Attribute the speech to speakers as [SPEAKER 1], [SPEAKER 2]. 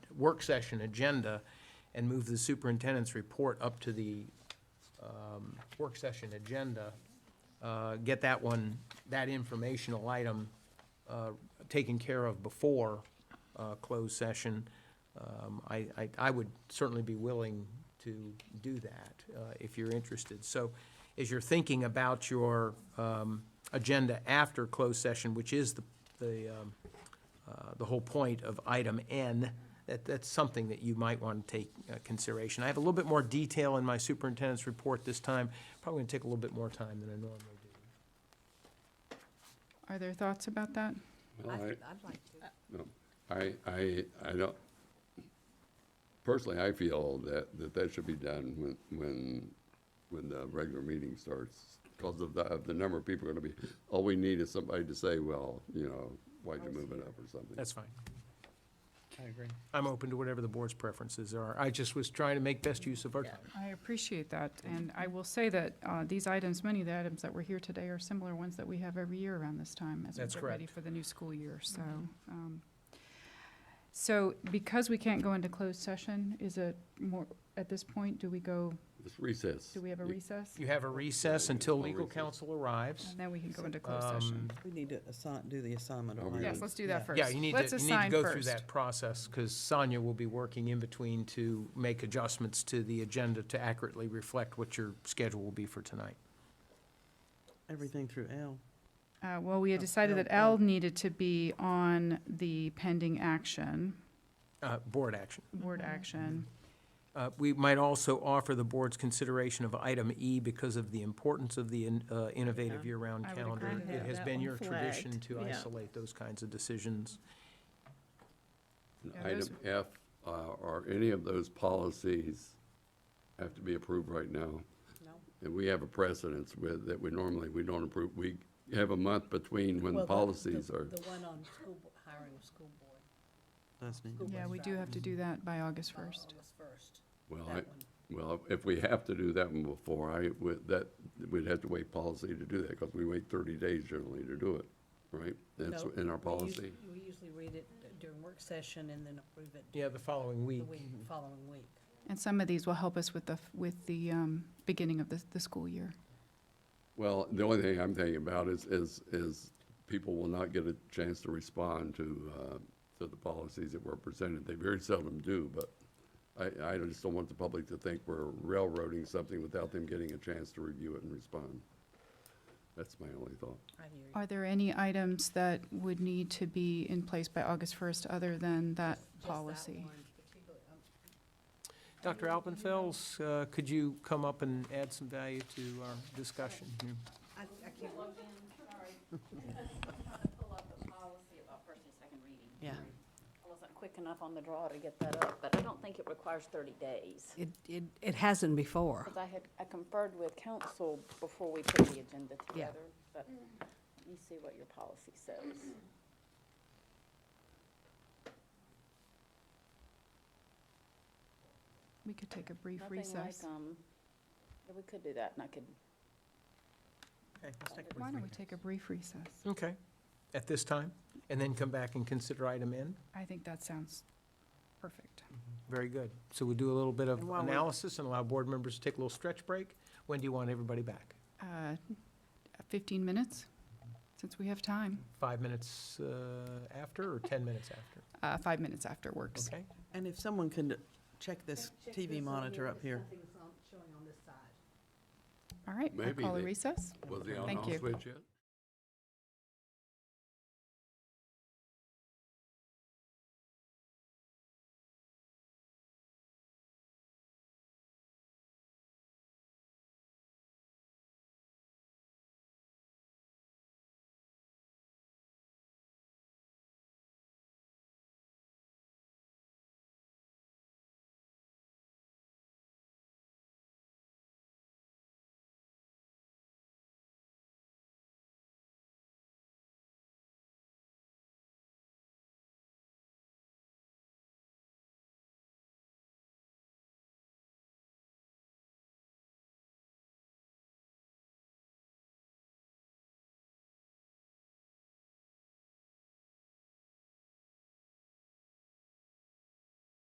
[SPEAKER 1] work session agenda and move the superintendent's report up to the um, work session agenda, uh, get that one, that informational item uh, taken care of before uh, closed session, um, I, I- I would certainly be willing to do that uh, if you're interested. So as you're thinking about your um, agenda after closed session, which is the, the um, uh, the whole point of item N, that, that's something that you might want to take uh, consideration. I have a little bit more detail in my superintendent's report this time, probably going to take a little bit more time than I normally do.
[SPEAKER 2] Are there thoughts about that?
[SPEAKER 3] Well, I-
[SPEAKER 4] I'd like to.
[SPEAKER 3] no, I, I, I don't, personally, I feel that, that that should be done when, when, when the regular meeting starts. Because of the, of the number of people are gonna be, all we need is somebody to say, well, you know, why'd you move it up or something.
[SPEAKER 1] That's fine.
[SPEAKER 5] I agree.
[SPEAKER 1] I'm open to whatever the board's preferences are. I just was trying to make best use of our time.
[SPEAKER 2] I appreciate that, and I will say that uh, these items, many of the items that were here today are similar ones that we have every year around this time as we
[SPEAKER 1] That's
[SPEAKER 2] get ready
[SPEAKER 1] correct.
[SPEAKER 2] for the new school year, so. um, So because we can't go into closed session, is it more, at this point, do we go,
[SPEAKER 3] It's recess.
[SPEAKER 2] do we have a
[SPEAKER 3] You-
[SPEAKER 2] recess?
[SPEAKER 1] You have a recess until
[SPEAKER 3] We'll
[SPEAKER 1] legal
[SPEAKER 3] recess.
[SPEAKER 1] counsel arrives.
[SPEAKER 2] And then we can go into closed session.
[SPEAKER 1] Um,
[SPEAKER 5] We need to assign, do the assignment
[SPEAKER 3] Are
[SPEAKER 5] of
[SPEAKER 3] we
[SPEAKER 5] language.
[SPEAKER 2] Yes, let's do that first.
[SPEAKER 1] Yeah, you need to,
[SPEAKER 2] Let's
[SPEAKER 1] you need to
[SPEAKER 2] assign
[SPEAKER 1] go through
[SPEAKER 2] first.
[SPEAKER 1] that process, because Sonia will be working in between to make adjustments to the agenda to accurately reflect what your schedule will be for tonight.
[SPEAKER 5] Everything through L.
[SPEAKER 2] Uh, Well, we had
[SPEAKER 5] Oh,
[SPEAKER 2] decided
[SPEAKER 5] no,
[SPEAKER 2] that
[SPEAKER 5] no.
[SPEAKER 2] L needed to be on the pending action,
[SPEAKER 1] Uh, Board action.
[SPEAKER 2] board action.
[SPEAKER 1] Uh, We might also offer the board's consideration of item E because of the importance of the in- uh, innovative
[SPEAKER 5] Yeah.
[SPEAKER 1] year-round
[SPEAKER 2] I would
[SPEAKER 1] calendar.
[SPEAKER 2] agree
[SPEAKER 4] to
[SPEAKER 1] It
[SPEAKER 4] that.
[SPEAKER 1] has
[SPEAKER 4] That
[SPEAKER 1] been
[SPEAKER 4] one
[SPEAKER 1] your tradition
[SPEAKER 4] flagged,
[SPEAKER 1] to
[SPEAKER 4] yeah.
[SPEAKER 1] isolate those kinds of decisions.
[SPEAKER 3] And
[SPEAKER 2] Yeah, those-
[SPEAKER 3] Item F, uh, are any of those policies have to be approved right now?
[SPEAKER 4] No.
[SPEAKER 3] And we have a precedence with, that we normally, we don't approve, we have a month between when
[SPEAKER 4] Well, the-
[SPEAKER 3] policies
[SPEAKER 4] the-
[SPEAKER 3] are.
[SPEAKER 4] The one on school, bo- hiring of school board.
[SPEAKER 5] That's neat.
[SPEAKER 4] School
[SPEAKER 2] Yeah,
[SPEAKER 4] board
[SPEAKER 2] we do have to do that by August
[SPEAKER 4] by
[SPEAKER 2] 1st.
[SPEAKER 4] August first.
[SPEAKER 3] Well, I,
[SPEAKER 4] That one.
[SPEAKER 3] well, if we have to do that one before, I would, that, we'd have to wait policy to do that, because we wait thirty days generally to do it, right? That's
[SPEAKER 4] No,
[SPEAKER 3] in our
[SPEAKER 4] we usu-
[SPEAKER 3] policy.
[SPEAKER 4] We usually read it during work session and then approve it
[SPEAKER 1] Yeah, the following
[SPEAKER 4] the
[SPEAKER 1] week.
[SPEAKER 4] week, following week.
[SPEAKER 2] And some of these will help us with the, with the um, beginning of the, the school year.
[SPEAKER 3] Well, the only thing I'm thinking about is, is, is people will not get a chance to respond to, uh, to the policies that were presented. They very seldom do, but I, I just don't want the public to think we're railroading something without them getting a chance to review it and respond. That's my only thought.
[SPEAKER 4] I hear you.
[SPEAKER 2] Are there any items that would need to be in place by August 1st other than that
[SPEAKER 4] Just that
[SPEAKER 2] policy?
[SPEAKER 4] one particular- um,
[SPEAKER 1] Dr. Alpenfels, uh, could you come up and add some value to our discussion here?
[SPEAKER 4] I, I can't,
[SPEAKER 6] pull up the policy about first and second reading.
[SPEAKER 5] Yeah.
[SPEAKER 6] I wasn't quick enough on the draw to get that up, but I don't think it requires thirty days.
[SPEAKER 7] It, it, it hasn't before.
[SPEAKER 6] Because I had, I conferred with council before we put the agenda
[SPEAKER 7] Yeah.
[SPEAKER 6] together, but let me see what your policy says.
[SPEAKER 2] We could take a brief
[SPEAKER 6] Nothing like,
[SPEAKER 2] recess.
[SPEAKER 6] um, yeah, We could do that, and I could,
[SPEAKER 1] Okay, let's take a
[SPEAKER 2] Why
[SPEAKER 1] brief
[SPEAKER 2] don't we
[SPEAKER 1] break.
[SPEAKER 2] take a brief recess?
[SPEAKER 1] Okay, at this time, and then come back and consider item N?
[SPEAKER 2] I think that sounds perfect.
[SPEAKER 1] Very good. So we'll do a little bit of
[SPEAKER 5] And while we're-
[SPEAKER 1] analysis and allow board members to take a little stretch break. When do you want everybody back?
[SPEAKER 2] Uh, 15 minutes, since we have time.
[SPEAKER 1] Five minutes uh, after or 10 minutes after?
[SPEAKER 2] Uh, Five minutes after works.
[SPEAKER 1] Okay?
[SPEAKER 5] And if someone can check this
[SPEAKER 4] check this
[SPEAKER 5] TV
[SPEAKER 4] on
[SPEAKER 5] monitor up
[SPEAKER 4] if
[SPEAKER 5] here.
[SPEAKER 4] Something's on, showing on this side.
[SPEAKER 2] All right, I
[SPEAKER 3] Maybe
[SPEAKER 2] call a
[SPEAKER 3] they-
[SPEAKER 2] recess.
[SPEAKER 3] Was the
[SPEAKER 2] Thank
[SPEAKER 3] on-off
[SPEAKER 2] you.
[SPEAKER 3] switch yet?